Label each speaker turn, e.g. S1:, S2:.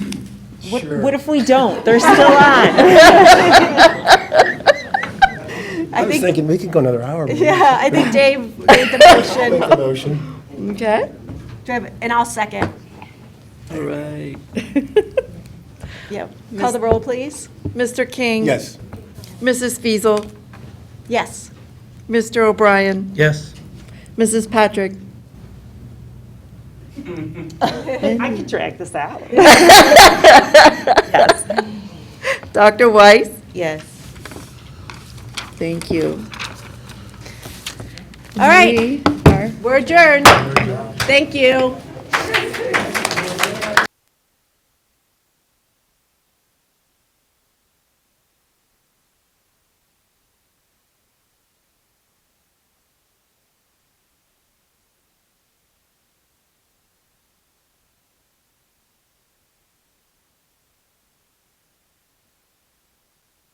S1: What,
S2: Sure.
S1: what if we don't? They're still on.
S2: I was thinking, we could go another hour. but
S1: Yeah, I think Dave made the motion.
S2: Make the motion.
S3: Okay.
S1: Do I have- And I'll second.
S3: All right.
S1: Yep. Call the roll, please.
S3: Mr. King?
S2: Yes.
S3: Mrs. Feasel?
S1: Yes.
S3: Mr. O'Brien?
S2: Yes.
S3: Mrs. Patrick?
S4: I can drag this out.
S3: Dr. Weiss?
S4: Yes.
S3: Thank you.
S1: All right.
S3: We are-
S1: We're adjourned. Thank you.